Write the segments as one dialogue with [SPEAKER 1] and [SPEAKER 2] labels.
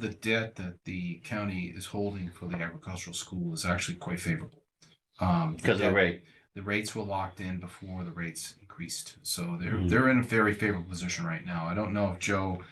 [SPEAKER 1] the debt that the county is holding for the agricultural school is actually quite favorable. Um,
[SPEAKER 2] because of the
[SPEAKER 1] that-
[SPEAKER 2] rate.
[SPEAKER 1] the rates were locked in before the rates increased, so they're,
[SPEAKER 2] Mhm.
[SPEAKER 1] they're in a very favorable position right now. I don't know if Joe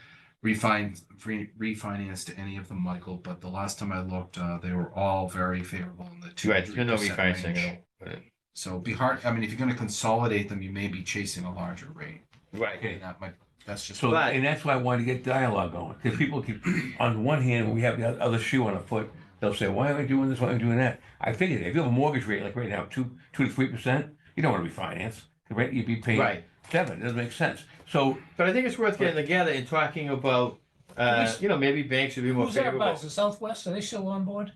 [SPEAKER 1] refined, re- refinanced any of them, Michael, but the last time I looked, uh, they were all very favorable in the two.
[SPEAKER 2] Right, there's been no
[SPEAKER 1] 3%
[SPEAKER 2] refinancing.
[SPEAKER 1] range.
[SPEAKER 2] at all. Right.
[SPEAKER 1] So it'd be hard, I mean, if you're gonna consolidate them, you may be chasing a larger rate,
[SPEAKER 2] Right,
[SPEAKER 1] and that might, that's just.
[SPEAKER 3] So,
[SPEAKER 2] But-
[SPEAKER 3] and that's why I wanted to get dialogue going, because people keep, on the one hand, we have the other shoe on our foot. They'll say, why am I doing this? Why am I doing that? I figured if you have a mortgage rate like right now, two, two to three percent, you don't want to refinance. The rate you'd be paying
[SPEAKER 2] right.
[SPEAKER 3] seven, it doesn't make sense. So
[SPEAKER 2] But I think it's worth getting together and talking about, uh,
[SPEAKER 4] Who's-
[SPEAKER 2] you know, maybe banks would be more
[SPEAKER 4] Who's that about?
[SPEAKER 2] favorable.
[SPEAKER 4] Is it Southwest? Are they still on board?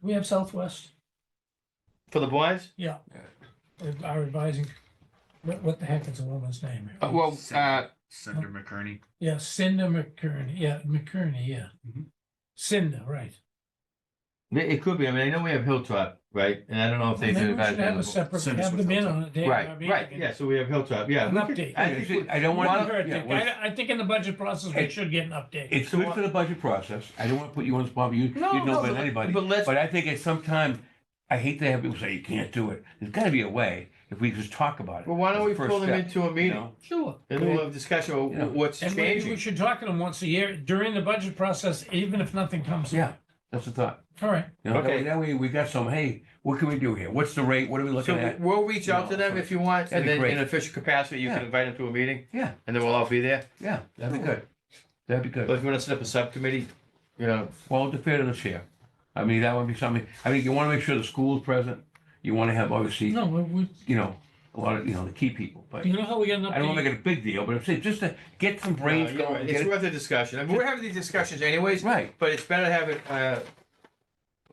[SPEAKER 4] We have Southwest,
[SPEAKER 2] For the bonds?
[SPEAKER 4] uh, our advising, what, what the heck is the woman's name?
[SPEAKER 3] Uh, well, uh,
[SPEAKER 1] Senator McCurney.
[SPEAKER 4] Yeah, Cinda McCurney, yeah, McCurney, yeah.
[SPEAKER 1] Mhm.
[SPEAKER 4] Cinda, right.
[SPEAKER 2] It it could be. I mean, I know we have Hilltop, right? And I don't know if they
[SPEAKER 4] Maybe we
[SPEAKER 2] do.
[SPEAKER 4] should have a separate,
[SPEAKER 1] Cinda's
[SPEAKER 4] have
[SPEAKER 1] with
[SPEAKER 4] them in
[SPEAKER 1] us.
[SPEAKER 4] on a day. of our
[SPEAKER 2] Right,
[SPEAKER 4] meeting
[SPEAKER 2] right,
[SPEAKER 4] and-
[SPEAKER 2] yeah, so we have Hilltop, yeah.
[SPEAKER 4] An
[SPEAKER 2] we could-
[SPEAKER 4] update.
[SPEAKER 2] I think we-
[SPEAKER 3] I don't
[SPEAKER 4] Well,
[SPEAKER 3] want
[SPEAKER 4] I
[SPEAKER 3] to.
[SPEAKER 4] think- I, I think in the budget process, we
[SPEAKER 3] It-
[SPEAKER 4] should get an update.
[SPEAKER 3] It's good for the budget process. I don't want to put you on the spot, but you, you
[SPEAKER 2] No,
[SPEAKER 3] know
[SPEAKER 2] no,
[SPEAKER 3] better
[SPEAKER 2] but-
[SPEAKER 3] than anybody.
[SPEAKER 2] But let's,
[SPEAKER 3] But I think at some time, I hate to have people say, you can't do it. There's got to be a way if we just talk about it.
[SPEAKER 2] well, why don't
[SPEAKER 3] as a
[SPEAKER 2] we
[SPEAKER 3] first
[SPEAKER 2] pull them
[SPEAKER 3] step,
[SPEAKER 2] into a
[SPEAKER 3] you
[SPEAKER 2] meeting?
[SPEAKER 3] know?
[SPEAKER 4] Sure.
[SPEAKER 2] And we'll have a discussion of
[SPEAKER 3] Yeah.
[SPEAKER 2] what's
[SPEAKER 4] And maybe we
[SPEAKER 2] changing.
[SPEAKER 4] should talk to them once a year during the budget process, even if nothing comes. up.
[SPEAKER 3] Yeah, that's the thought.
[SPEAKER 4] All right,
[SPEAKER 3] You know, that
[SPEAKER 2] Okay.
[SPEAKER 3] way- that way we got some, hey, what can we do here? What's the rate? What are we looking
[SPEAKER 2] So
[SPEAKER 3] at?
[SPEAKER 2] we'll reach out to
[SPEAKER 3] No,
[SPEAKER 2] them if you want,
[SPEAKER 3] that'd
[SPEAKER 2] and
[SPEAKER 3] be
[SPEAKER 2] then in
[SPEAKER 3] great.
[SPEAKER 2] an official capacity, you can
[SPEAKER 3] Yeah.
[SPEAKER 2] invite them to a meeting.
[SPEAKER 3] Yeah.
[SPEAKER 2] And then we'll all be there.
[SPEAKER 3] Yeah, that'd be good. That'd be
[SPEAKER 2] But
[SPEAKER 3] good.
[SPEAKER 2] if you want to set up a subcommittee, you know,
[SPEAKER 3] Well, the fair to the chair. I mean, that would be something, I mean, you want to make sure the school's present. You want to have, obviously,
[SPEAKER 4] no, we, we,
[SPEAKER 3] you know, a lot of, you know, the key people, but
[SPEAKER 4] you know how we got an update?
[SPEAKER 3] I don't want to make it a big deal, but I'm saying just to get some
[SPEAKER 2] No,
[SPEAKER 3] brains
[SPEAKER 2] you're
[SPEAKER 3] going.
[SPEAKER 2] right. Uh, It's
[SPEAKER 3] get it-
[SPEAKER 2] worth a discussion. I mean, we're having these discussions anyways,
[SPEAKER 3] Right.
[SPEAKER 2] but it's better to have it, uh,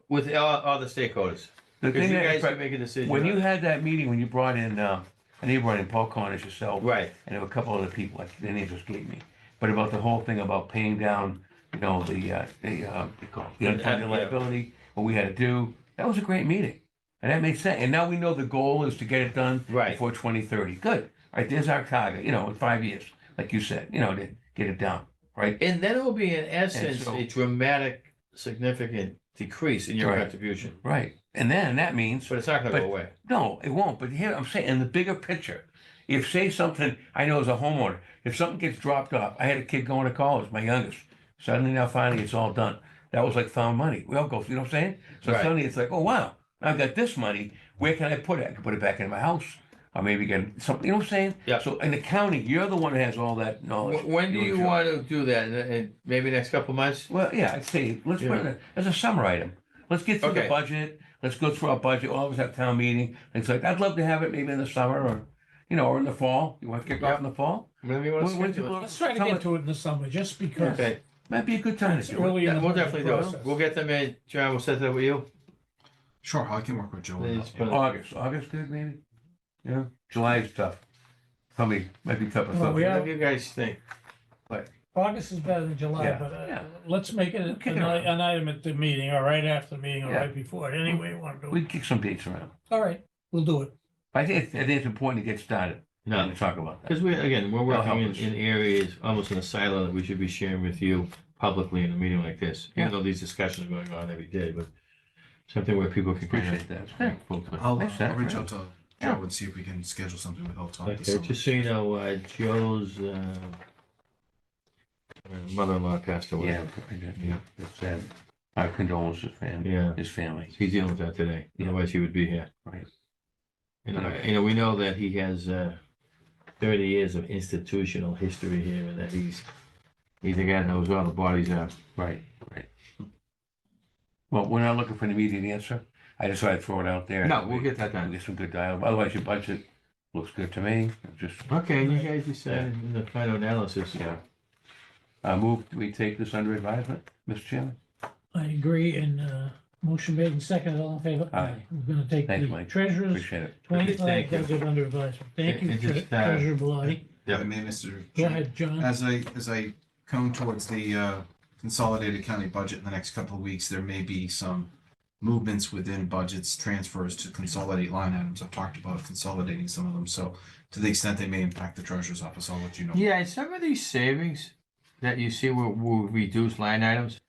[SPEAKER 2] with all, all the stakeholders.
[SPEAKER 3] The
[SPEAKER 2] Because
[SPEAKER 3] thing
[SPEAKER 2] you guys
[SPEAKER 3] that-
[SPEAKER 2] can make a decision.
[SPEAKER 3] When
[SPEAKER 2] on
[SPEAKER 3] you
[SPEAKER 2] it.
[SPEAKER 3] had that meeting, when you brought in, uh, I think you brought in Paul Cornish yourself.
[SPEAKER 2] Right,
[SPEAKER 3] and there were a couple other people, like their names escaped me, but about the whole thing about paying down, you know, the, uh, the, uh, what do you call it? the
[SPEAKER 2] Yeah.
[SPEAKER 3] unfunded liability, what we had to do. That was a great meeting. And that made sense. And now we know the goal is to get it done
[SPEAKER 2] Right.
[SPEAKER 3] before twenty thirty. Good. All right, there's our target, you know, in five years, like you said, you know, to get it down, right?
[SPEAKER 2] and then it will be in essence
[SPEAKER 3] so-
[SPEAKER 2] a dramatic, significant decrease in your
[SPEAKER 3] Right.
[SPEAKER 2] contribution,
[SPEAKER 3] Right. And then that means
[SPEAKER 2] but it's not gonna go
[SPEAKER 3] But-
[SPEAKER 2] away.
[SPEAKER 3] No, it won't. But here, I'm saying, in the bigger picture, if say something, I know as a homeowner, if something gets dropped off, I had a kid going to college, my youngest. Suddenly now finally it's all done. That was like found money. We all go, you know what I'm saying? So
[SPEAKER 2] Right.
[SPEAKER 3] suddenly it's like, oh wow, I've got this money. Where can I put it? I can put it back in my house. Or maybe get something, you know what I'm saying?
[SPEAKER 2] Yeah.
[SPEAKER 3] So in the county, you're the one that has all that knowledge.
[SPEAKER 2] Wh- When do you
[SPEAKER 3] oh, enjoy.
[SPEAKER 2] want to do that? And, and maybe next couple months?
[SPEAKER 3] Well, yeah, I'd say, let's put it as a summer item. Let's get through
[SPEAKER 2] Okay.
[SPEAKER 3] the budget, let's go through our budget, all of us have town meeting, things like, I'd love to have it maybe in the summer or, you know, or in the fall. You want to kick off in the fall?
[SPEAKER 2] Whenever you want to
[SPEAKER 3] When- when
[SPEAKER 2] schedule it.
[SPEAKER 3] people-
[SPEAKER 4] Let's try to
[SPEAKER 3] Tell
[SPEAKER 4] get
[SPEAKER 3] it-
[SPEAKER 4] to it in the summer, just because.
[SPEAKER 2] Okay,
[SPEAKER 3] Might be a good time to
[SPEAKER 4] It's
[SPEAKER 3] do it.
[SPEAKER 4] early in
[SPEAKER 2] yeah,
[SPEAKER 4] the
[SPEAKER 2] we'll
[SPEAKER 4] budget
[SPEAKER 2] definitely do it.
[SPEAKER 4] process.
[SPEAKER 2] We'll get them in, John, we'll set that with you.
[SPEAKER 1] Sure, I can work with Joe. on
[SPEAKER 2] Then
[SPEAKER 1] that.
[SPEAKER 2] it's put it-
[SPEAKER 3] August, August good maybe? Yeah, July is tough. Probably, might be tough. or
[SPEAKER 4] Well,
[SPEAKER 3] something.
[SPEAKER 4] we are-
[SPEAKER 2] Whatever you guys think.
[SPEAKER 4] August is better than July,
[SPEAKER 3] Yeah,
[SPEAKER 4] but uh,
[SPEAKER 3] yeah.
[SPEAKER 4] let's make it
[SPEAKER 3] Kick it
[SPEAKER 4] an i- an item at the meeting, or right after the meeting, or
[SPEAKER 3] Yeah.
[SPEAKER 4] right before, it, any way you want to do it.
[SPEAKER 3] We can kick some dates around.
[SPEAKER 4] All right, we'll do it.
[SPEAKER 3] I think, it's- I think it's important to get started
[SPEAKER 2] No,
[SPEAKER 3] and talk about that.
[SPEAKER 2] Because we, again, we're
[SPEAKER 3] That'll
[SPEAKER 2] working in,
[SPEAKER 3] help us.
[SPEAKER 2] in areas, almost in a silo that we should be sharing with you publicly in a meeting like this.
[SPEAKER 3] Yeah.
[SPEAKER 2] Even though these discussions are going on every day, but something where people can. kind of-
[SPEAKER 3] Appreciate that. Thank
[SPEAKER 1] I'll, uh,
[SPEAKER 3] Makes sense,
[SPEAKER 1] I'll reach
[SPEAKER 3] right?
[SPEAKER 1] out to Joe and see if we can schedule something with Hilltop. this
[SPEAKER 2] Okay,
[SPEAKER 1] summer.
[SPEAKER 2] just so you know, uh, Joe's, uh, mother-in-law passed away.
[SPEAKER 3] Yeah, yeah, it's, uh, our condolences, man,
[SPEAKER 2] Yeah,
[SPEAKER 3] his family.
[SPEAKER 2] he's dealing with that today.
[SPEAKER 3] Yeah.
[SPEAKER 2] Otherwise, he would be here.
[SPEAKER 3] Right.
[SPEAKER 2] You know,
[SPEAKER 3] Okay.
[SPEAKER 2] you know, we know that he has, uh, thirty years of institutional history here and that he's, he's a guy that knows where all the bodies are.
[SPEAKER 3] Right, right. Well, we're not looking for an immediate answer. I just thought I'd throw it out there.
[SPEAKER 2] No, we'll get that done.
[SPEAKER 3] Get some good dialogue. Otherwise, your budget looks good to me. I'm Just,
[SPEAKER 2] Okay, you guys decided in the final analysis.
[SPEAKER 3] yeah. Uh, move, do we take this under advisement, Mr. Chairman?
[SPEAKER 4] I agree, and uh, motion made and seconded, all in favor?
[SPEAKER 3] Aye.
[SPEAKER 4] We're gonna take
[SPEAKER 3] Thank you,
[SPEAKER 4] the
[SPEAKER 3] Mike.
[SPEAKER 4] treasurer's
[SPEAKER 3] Appreciate it.
[SPEAKER 4] twenty-five
[SPEAKER 2] Thank you.
[SPEAKER 4] budget under advisement. Thank you,
[SPEAKER 2] And
[SPEAKER 4] Tre-
[SPEAKER 2] just, uh,
[SPEAKER 4] Treasurer Bellotti.
[SPEAKER 1] If I may, Mr.
[SPEAKER 4] Go
[SPEAKER 1] Chair.
[SPEAKER 4] ahead, John.
[SPEAKER 1] As I, as I come towards the uh, consolidated county budget in the next couple of weeks, there may be some movements within budgets, transfers to consolidate line items. I've talked about consolidating some of them, so to the extent they may impact the treasurer's office, I'll let you know.
[SPEAKER 2] Yeah, and some of these savings, that you see where we reduce line items?